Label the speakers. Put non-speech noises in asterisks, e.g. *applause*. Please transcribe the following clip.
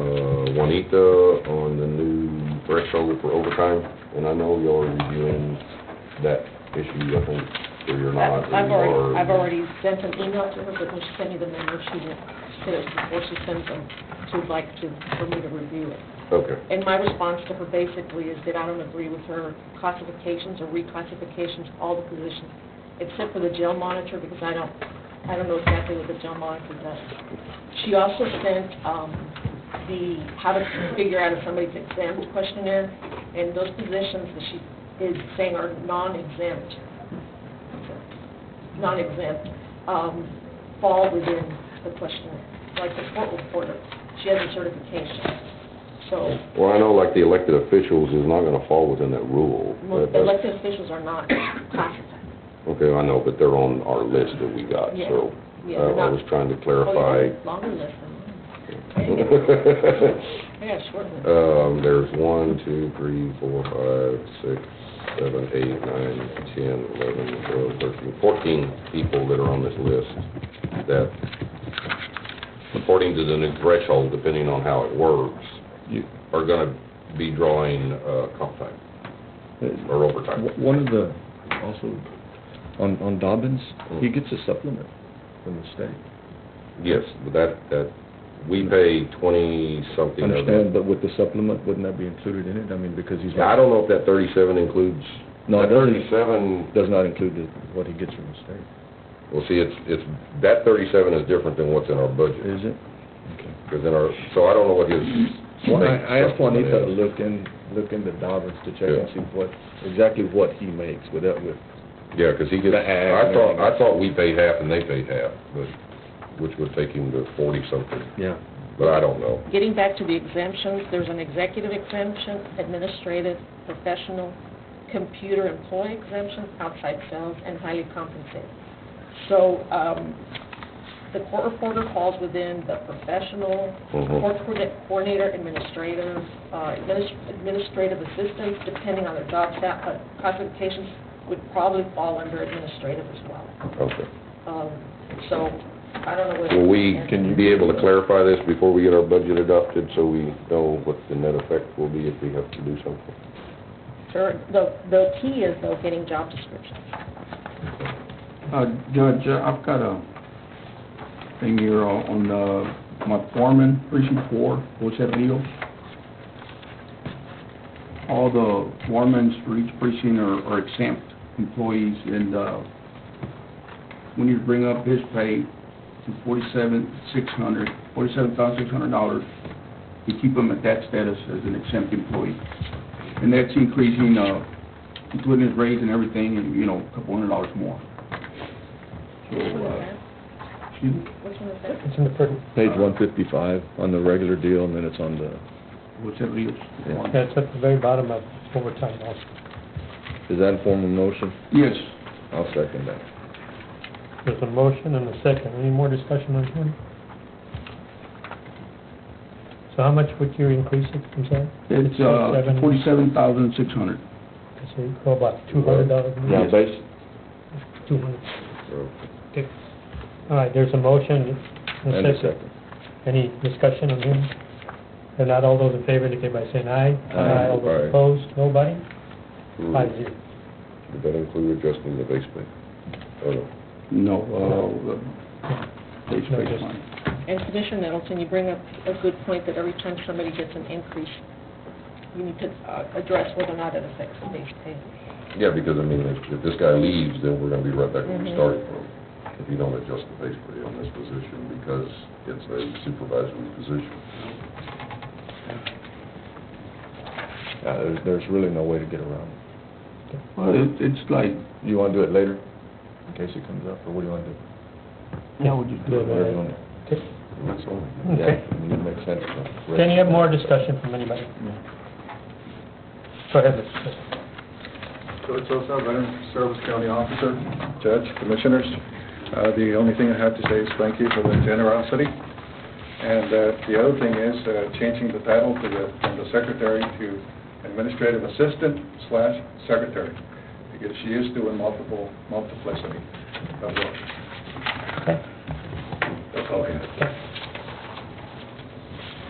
Speaker 1: on ETA uh, on the new threshold for overtime, and I know y'all are reviewing that issue, I think, or you're not. or
Speaker 2: I've
Speaker 1: you
Speaker 2: already,
Speaker 1: are.
Speaker 2: I've already sent an email to her, but when she sent me the number, she didn't, she did it before she sends them, she would like to, for me to review it.
Speaker 1: Okay,
Speaker 2: And my response to her basically is that I don't agree with her classifications or reclassifications, of all the positions, except for the jail monitor, because I don't, I don't know exactly what the jail monitor does. She also sent, um, the, how to figure out if somebody's exempt questionnaire, and those positions that she is saying are non-exempt, non-exempt, um, fall within the questionnaire, like the court reporter, she has a certification, so.
Speaker 1: well, I know like the elected officials is not gonna fall within that rule.
Speaker 2: Most
Speaker 1: That- that's-
Speaker 2: Elected officials are not classified.
Speaker 1: Okay, I know, but they're on our list that we got,
Speaker 2: Yeah.
Speaker 1: so
Speaker 2: Yeah,
Speaker 1: I
Speaker 2: they're
Speaker 1: I
Speaker 2: not-
Speaker 1: was trying to
Speaker 2: Oh,
Speaker 1: clarify.
Speaker 2: yeah, Longer
Speaker 1: *laughs*
Speaker 2: list than mine. I got a short list.
Speaker 1: Um, there's one, two, three, four, five, six, seven, eight, nine, ten, eleven, twelve, thirteen, fourteen people that are on this list that, according to the new threshold, depending on how it works,
Speaker 3: You-
Speaker 1: are gonna be drawing, uh, comp time or overtime.
Speaker 3: uh, W- One of the, also, on, on Dobbins, he gets a supplement from the state.
Speaker 1: Yes, but that, that, we pay twenty-something of it.
Speaker 3: Understand, but with the supplement, wouldn't that be included in it? I mean, because he's
Speaker 1: Yeah, I
Speaker 3: not,
Speaker 1: don't know if that thirty-seven includes.
Speaker 3: No, it
Speaker 1: That
Speaker 3: doesn't.
Speaker 1: Thirty-seven,
Speaker 3: does not include the- what he gets from the state,
Speaker 1: well, see, it's, it's, that thirty-seven is different than what's in our budget,
Speaker 3: is it? Okay.
Speaker 1: because in our, so I don't know what his.
Speaker 3: Well, I, I asked
Speaker 1: supplement
Speaker 3: Juanita to
Speaker 1: is.
Speaker 3: look in, look into Dobbins to check and
Speaker 1: Yeah.
Speaker 3: see what, exactly what he makes with that, with,
Speaker 1: Yeah, because he gets,
Speaker 3: The ag
Speaker 1: I
Speaker 3: and
Speaker 1: thought, I
Speaker 3: everything.
Speaker 1: thought we paid half and they paid half, but, which would take him to forty-something,
Speaker 3: yeah.
Speaker 1: but I don't know.
Speaker 2: Getting back to the exemptions, there's an executive exemption, administrative, professional, computer employee exemption, outside sales, and highly compensated. So, um, the court reporter falls within the professional,
Speaker 1: Mhm.
Speaker 2: court coordi- coordinator, administrative, uh, adminis- administrative assistants, depending on their job stat, but classifications would probably fall under administrative as well.
Speaker 1: Okay.
Speaker 2: Um, so, I don't know whether.
Speaker 1: Will we
Speaker 3: Can you-
Speaker 1: be able to clarify this before we get our budget adopted, so we know what the net effect will be if we have to do something?
Speaker 2: Sure, the, the key is though getting job descriptions.
Speaker 4: Uh, Judge, I've got a thing here on, uh, my foreman, precinct four, what's that deal? All the foremans for each precinct are are exempt employees, and, uh, when you bring up his pay to forty-seven, six hundred, forty-seven thousand, six hundred dollars, you keep him at that status as an exempt employee. And that's increasing, uh, including his raise and everything, and, you know, a couple hundred dollars more. So,
Speaker 2: Which one is
Speaker 4: uh,
Speaker 2: that?
Speaker 4: Excuse me?
Speaker 2: Which one is that?
Speaker 3: Page one fifty-five on the regular deal, and then it's on the,
Speaker 4: What's that deal?
Speaker 3: Yeah.
Speaker 5: That's at the very bottom of overtime also.
Speaker 3: is that a formal motion?
Speaker 4: Yes.
Speaker 3: I'll second that.
Speaker 5: There's a motion and a second. Any more discussion on him? So how much would you increase it, I'm sorry?
Speaker 4: It's, uh,
Speaker 5: Seven-
Speaker 4: forty-seven thousand, six hundred.
Speaker 5: So you go about two hundred dollars.
Speaker 3: Now, base,
Speaker 5: Two hundred.
Speaker 1: So-
Speaker 5: Okay. All right, there's a motion
Speaker 3: and a second.
Speaker 5: Any discussion on him? If not, all those in favor indicate by saying aye.
Speaker 3: Aye.
Speaker 5: All
Speaker 1: Aye.
Speaker 5: those opposed, nobody?
Speaker 1: Hmm.
Speaker 5: Five zero.
Speaker 1: Did that include adjusting the base pay? Oh, no.
Speaker 4: No, uh, they
Speaker 5: No, just-
Speaker 2: And Commissioner Nettleton, you bring up a good point that every time somebody gets an increase, you need to uh, address whether or not it affects the base pay.
Speaker 1: Yeah, because I mean, if, if this guy leaves, then we're gonna be right back where we
Speaker 2: Mhm.
Speaker 1: started from. If you don't adjust the base pay on this position because it's a supervisory position.
Speaker 3: Uh, there's, there's really no way to get around it.
Speaker 4: Well, it- it's like,
Speaker 3: You wanna do it later, in case it comes up, or what do you wanna do?
Speaker 4: yeah, we just do
Speaker 3: Whatever
Speaker 4: it.
Speaker 3: you wanna-
Speaker 5: Okay.
Speaker 1: And that's all.
Speaker 3: Yeah,
Speaker 5: Okay.
Speaker 3: I mean, it makes sense.
Speaker 5: *laughs*
Speaker 3: though.
Speaker 5: Can you have more discussion from anybody? Go ahead, Mr. President.
Speaker 6: George Sosa, Veteran Service County Officer, Judge, Commissioners. Uh, The only thing I have to say is thank you for the generosity. And uh, the other thing is uh, changing the title to the, from the secretary to administrative assistant slash secretary, because she is doing multiple, multiplicity of work.
Speaker 5: Okay.
Speaker 6: That's all I have.